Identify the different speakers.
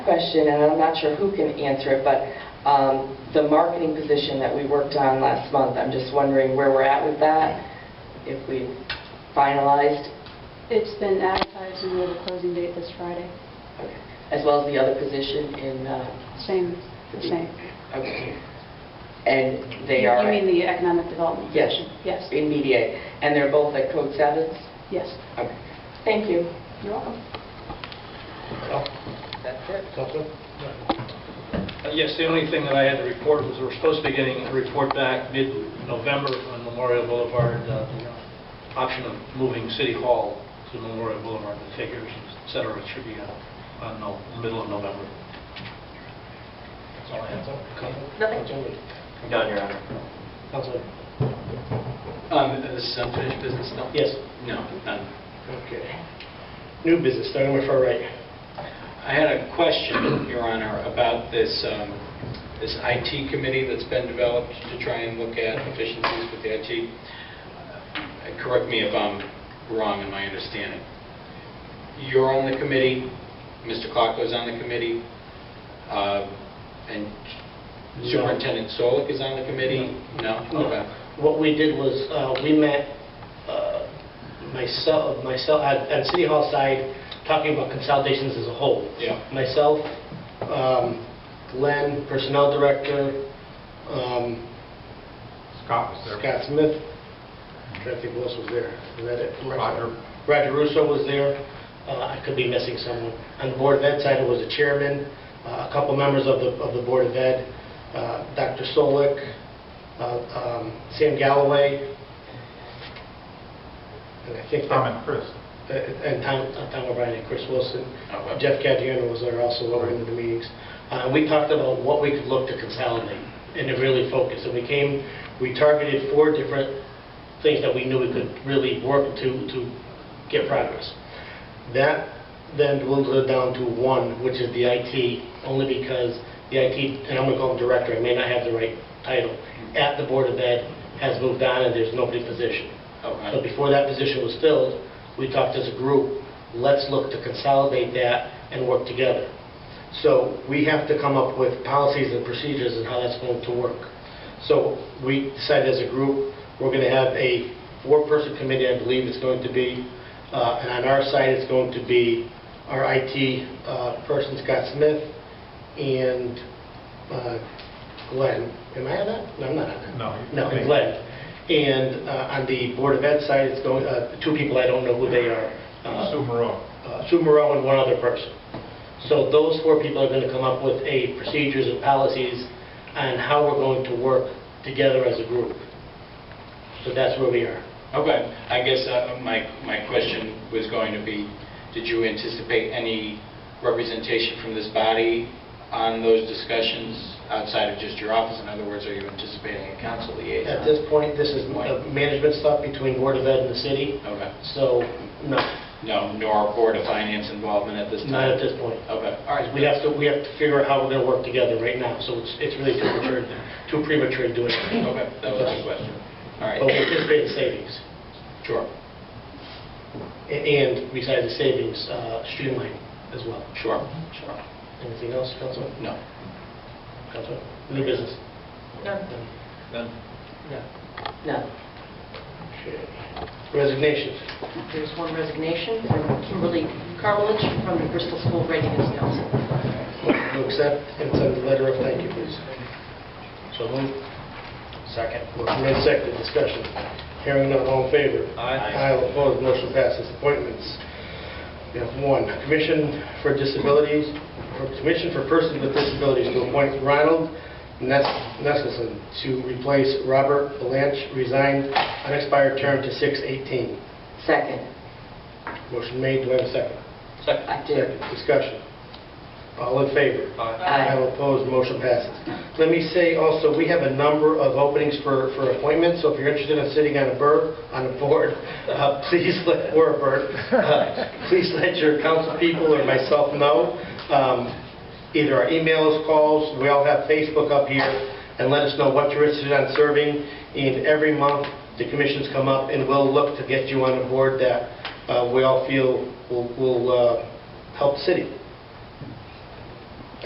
Speaker 1: question, and I'm not sure who can answer it, but um, the marketing position that we worked on last month, I'm just wondering where we're at with that, if we finalized,
Speaker 2: It's been advertised and we have a closing date this Friday.
Speaker 1: as well as the other position in, uh,
Speaker 2: Same, the same.
Speaker 1: okay. and they are
Speaker 2: You mean the economic development?
Speaker 1: Yes.
Speaker 2: commission? Yes,
Speaker 1: in media, and they're both at Code Sevens?
Speaker 2: yes.
Speaker 1: Okay. Thank you.
Speaker 2: You're welcome.
Speaker 1: That's it.
Speaker 3: Uh, Yes, the only thing that I had to report was we're supposed to be getting a report back mid-November on Memorial Boulevard, uh, the option of moving City Hall to Memorial Boulevard, the figures, et cetera, it should be, uh, I don't know, middle of November. That's all I have.
Speaker 4: Done, Your Honor. Um, This is unfinished business still?
Speaker 5: Yes.
Speaker 4: No, none.
Speaker 5: Okay. New business, starting with far right.
Speaker 4: I had a question, Your Honor, about this, um, this IT committee that's been developed to try and look at efficiencies with the IT. Uh, Correct me if I'm wrong in my understanding. You're on the committee, Mr. Clarko's on the committee, uh, and
Speaker 5: No.
Speaker 4: Superintendent Solik is on the committee? No? Okay.
Speaker 5: What we did was, uh, we met, uh, myself, myself, at at City Hall side, talking about consolidations as a whole.
Speaker 4: Yeah.
Speaker 5: Myself, um, Glenn, Personnel Director, um,
Speaker 6: Scott was there.
Speaker 5: Scott Smith, trying to think who else was there. Was that it?
Speaker 6: Roger.
Speaker 5: Roger Russo was there. Uh, I could be missing someone. On the Board of Ed side, it was the chairman, uh, a couple members of the, of the Board of Ed, uh, Dr. Solik, uh, um, Sam Galloway, and I think... that-
Speaker 6: Tom and Chris.
Speaker 5: uh, And Tom uh, Tom O'Brien and Chris Wilson.
Speaker 4: Okay.
Speaker 5: Uh, Jeff Cadiano was there also over in the meetings. Uh, We talked about what we could look to consolidate and to really focus. And we came, we targeted four different things that we knew we could really work to, to get progress. That then dwindled it down to one, which is the IT, only because the IT, and I'm going to call him director, I may not have the right title, at the Board of Ed has moved on and there's nobody positioned.
Speaker 4: Okay.
Speaker 5: So before that position was filled, we talked as a group, let's look to consolidate that and work together. So we have to come up with policies and procedures and how that's going to work. So we decided as a group, we're going to have a four-person committee, I believe it's going to be, uh, and on our side, it's going to be our IT uh, person, Scott Smith, and uh, Glenn. Am I on that? No, I'm not on that.
Speaker 6: No.
Speaker 5: No, and Glenn. And uh, on the Board of Ed side, it's going, uh, two people, I don't know who they are. uh,
Speaker 6: Sue Moreau.
Speaker 5: uh, Sue Moreau and one other person. So those four people are going to come up with a procedures and policies on how we're going to work together as a group. So that's where we are.
Speaker 4: Okay, Oh, I guess uh, my, my question was going to be, did you anticipate any representation from this body on those discussions outside of just your office? In other words, are you anticipating a council liaison?
Speaker 5: At this point, this is uh, management stuff between Board of Ed and the city,
Speaker 4: Okay,
Speaker 5: so no,
Speaker 4: no, nor Board of Finance involvement at this time?
Speaker 5: not at this point.
Speaker 4: Okay, all right.
Speaker 5: We have to, we have to figure out how we're going to work together right now, so it's it's really too premature, too premature to do it.
Speaker 4: Okay, that was the question. All
Speaker 5: But we
Speaker 4: right,
Speaker 5: anticipate savings.
Speaker 4: sure,
Speaker 5: A- And besides the savings, uh, streamline as well.
Speaker 4: sure, sure.
Speaker 5: Anything else, Councilman?
Speaker 4: No.
Speaker 5: Councilman? New business? None.
Speaker 1: No.
Speaker 5: Okay. Resignations.
Speaker 7: There's one resignation from Kimberly Carmelich from the Bristol School Readiness Council.
Speaker 5: Motion to accept and send a letter of thank you, please. So moved. Second. Motion made second, discussion. Hearing none, all in favor?
Speaker 3: Aye.
Speaker 5: Aye, all opposed, motion passes. Appointments. We have one, Commission for Disabilities, or Commission for Persons with Disabilities to appoint Ronald Nes- Nesselson to replace Robert Belanch, resigned, unexpired term to 6/18.
Speaker 1: Second.
Speaker 5: Motion made, do I have a second?
Speaker 1: I did.
Speaker 5: Second, discussion. All in favor?
Speaker 1: Aye.
Speaker 5: All opposed, motion passes. Let me say also, we have a number of openings for, for appointments, so if you're interested in sitting on a bird, on a board, uh, please let, or a bird, uh, please let your council people or myself know, um, either our emails, calls, we all have Facebook up here, and let us know what you're interested in serving, and every month, the commissions come up, and we'll look to get you on a board that uh, we all feel will, will uh, help the city.